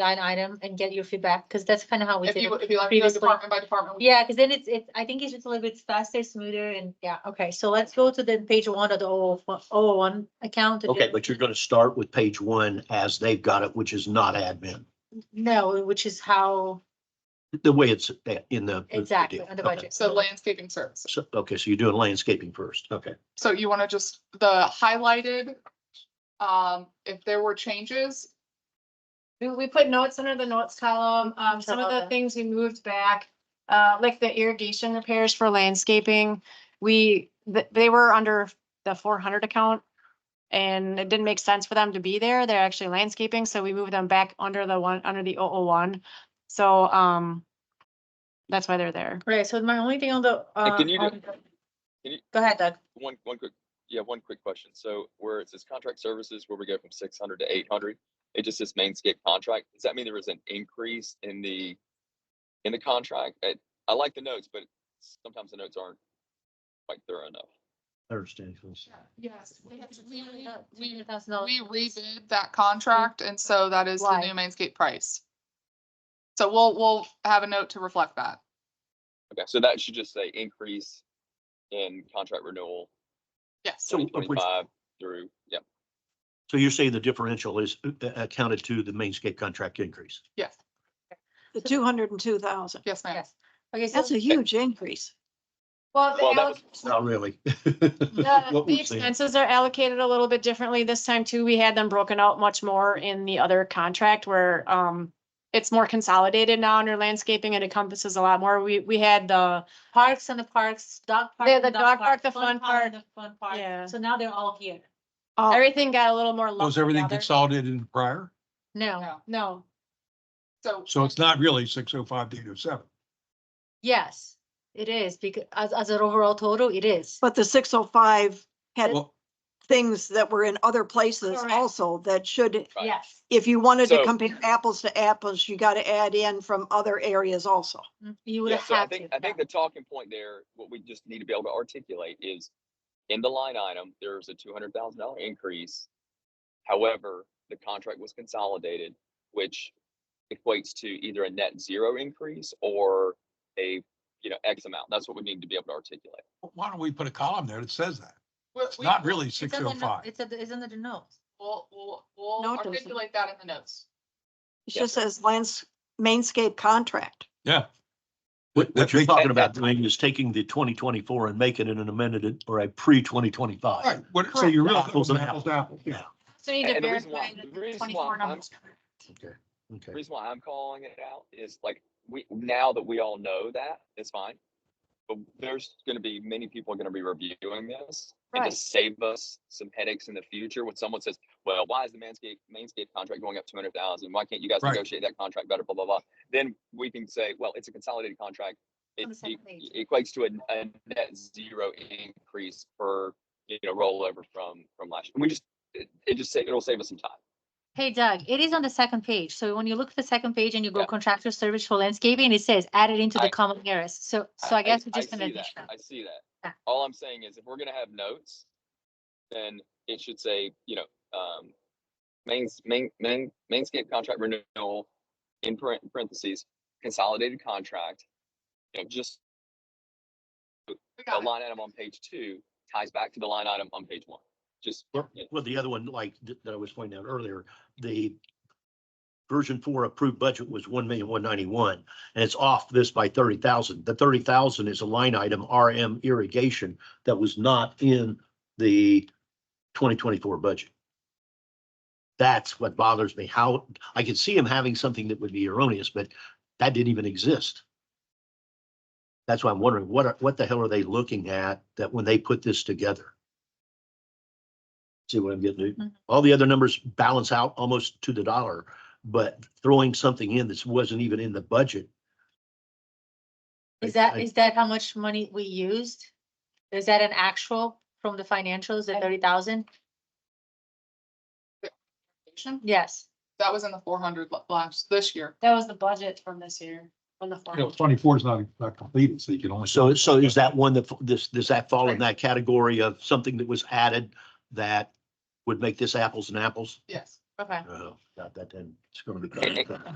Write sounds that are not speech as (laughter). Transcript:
line item and get your feedback, because that's kind of how we If did you, it. if you like to go previously. department by department. we- Yeah, because then it's, it's, I think it's just a little bit faster, smoother, and yeah, okay, so let's go to then page one of the O one account. and Okay, then- but you're gonna start with page one as they've got it, which is not admin, No, which is how, the way it's uh, in the. the exactly, deal. on the Okay. budget. So landscaping service. So, okay, so you're doing landscaping first, okay. So you want to just, the highlighted, um, if there were changes, We, we put notes under the notes column, um, some of the things we moved back, uh, like the irrigation repairs for landscaping. We, th- they were under the four hundred account. And it didn't make sense for them to be there. They're actually landscaping, so we moved them back under the one, under the 001. So, um, that's why they're there. Right, so my only thing on the. Hey, uh, can you do- on- can you- Go ahead, Doug. One, one quick, yeah, one quick question. So where it says contract services, where we go from six hundred to eight hundred, it just says mainscape contract. Does that mean there was an increase in the, in the contract? I, I like the notes, but sometimes the notes aren't quite thorough enough. I understand. yes. We Three thousand dollars. redid that contract and so that is the Why? new Mainscape price. So we'll, we'll have a note to reflect that. Okay, so that should just say increase in contract renewal Yes. So, twenty of which- twenty-five through, yeah. So you're saying the differential is uh, accounted to the mainscape contract increase? Yes, The two hundred and two thousand. yes, ma'am. Yes. Okay, so That's a huge increase. Well, Well, that was- Not really. (laughs) The What the we've seen. expenses are allocated a little bit differently this time too. We had them broken out much more in the other contract where um it's more consolidated now under landscaping. It encompasses a lot more. We, we had the, parks and the parks, dog park. Yeah, and the dog park, the fun and The fun park. Yeah. So now they're all here. oh, everything got a little more lumped Was everything together. consolidated in prior? No, No. No, So. So it's not really six oh five to eight oh seven. yes, it is, because as, as an overall total, it is. But the six oh five had Well, things that were in other places Correct. also that should, Right. Yes, if you wanted to So- compare apples to apples, you got to add in from other areas also. Mm, you would Yeah, so I have to. think, I think yeah. the talking point there, what we just need to be able to articulate is in the line item, there's a two hundred thousand dollar increase. However, the contract was consolidated, which equates to either a net zero increase or a, you know, X amount. That's what we need to be able to articulate. Why don't we put a column there that says that? we- It's we- not really It's six on oh the no- five. It's, at the- it's under the notes. We'll, we'll, we'll No, it doesn't. articulate that in the notes. It Yes, just says lands, mainscape contract. Yeah. What, what you're That- talking that- about that- doing is taking the twenty twenty-four and making it an amended or a pre twenty twenty-five. Right, what, so Correct. you're really Apples apples and to apples, to apples, yeah. so you need to And the reason why- verify the the reason why twenty-four I'm- numbers. Okay. The Okay. reason why I'm calling it out is like, we, now that we all know that, it's fine. But there's gonna be, many people are gonna be reviewing this. And to Right. save us some headaches in the future, when someone says, well, why is the Manscaped, Manscaped contract going up two hundred thousand? Why can't you guys Right. negotiate that contract better, blah, blah, blah? Then we can say, well, it's a consolidated contract. It On the same e- equates to a, a net zero increase per, you know, rollover from, from last. year. We just, it, it just, sa- it'll save us some time. Hey Doug, it is on the second page. So when you look at the second page and you go Yeah. contractor service for landscaping, it says added into the I- common areas. So, so I guess we're just gonna. see that. ditch that. I see Yeah. that. All I'm saying is if we're gonna have notes, then it should say, you know, um, mains, main, main, mainscape contract renewal in paren- parentheses, consolidated contract. You know, just We a got it. line item on page two ties back to the line item on page one. Just, Well, you know, well, the other one, like th- that I was pointing out earlier, the version four approved budget was one million, one ninety-one, and it's off this by thirty thousand. The thirty thousand is a line item, RM irrigation, that was not in the twenty twenty-four budget. That's what bothers me. How, I could see him having something that would be erroneous, but that didn't even exist. That's why I'm wondering, what, are- what the hell are they looking at that when they put this together? See what I'm getting at? Mhm. All the other numbers balance out almost to the dollar, but throwing something in that wasn't even in the budget. Is I- that, I- is that how much money we used? Is that an actual from the financials, the thirty thousand? Yes, That was in the four hundred last, this year. That was the budget from this year, from the You know, four. twenty-four is not, not completed, so you can only. So, so is that one that, this, does that fall in that category of something that was added that would make this apples and apples? Yes. Okay. Uh, Got that then. It's gonna And- be.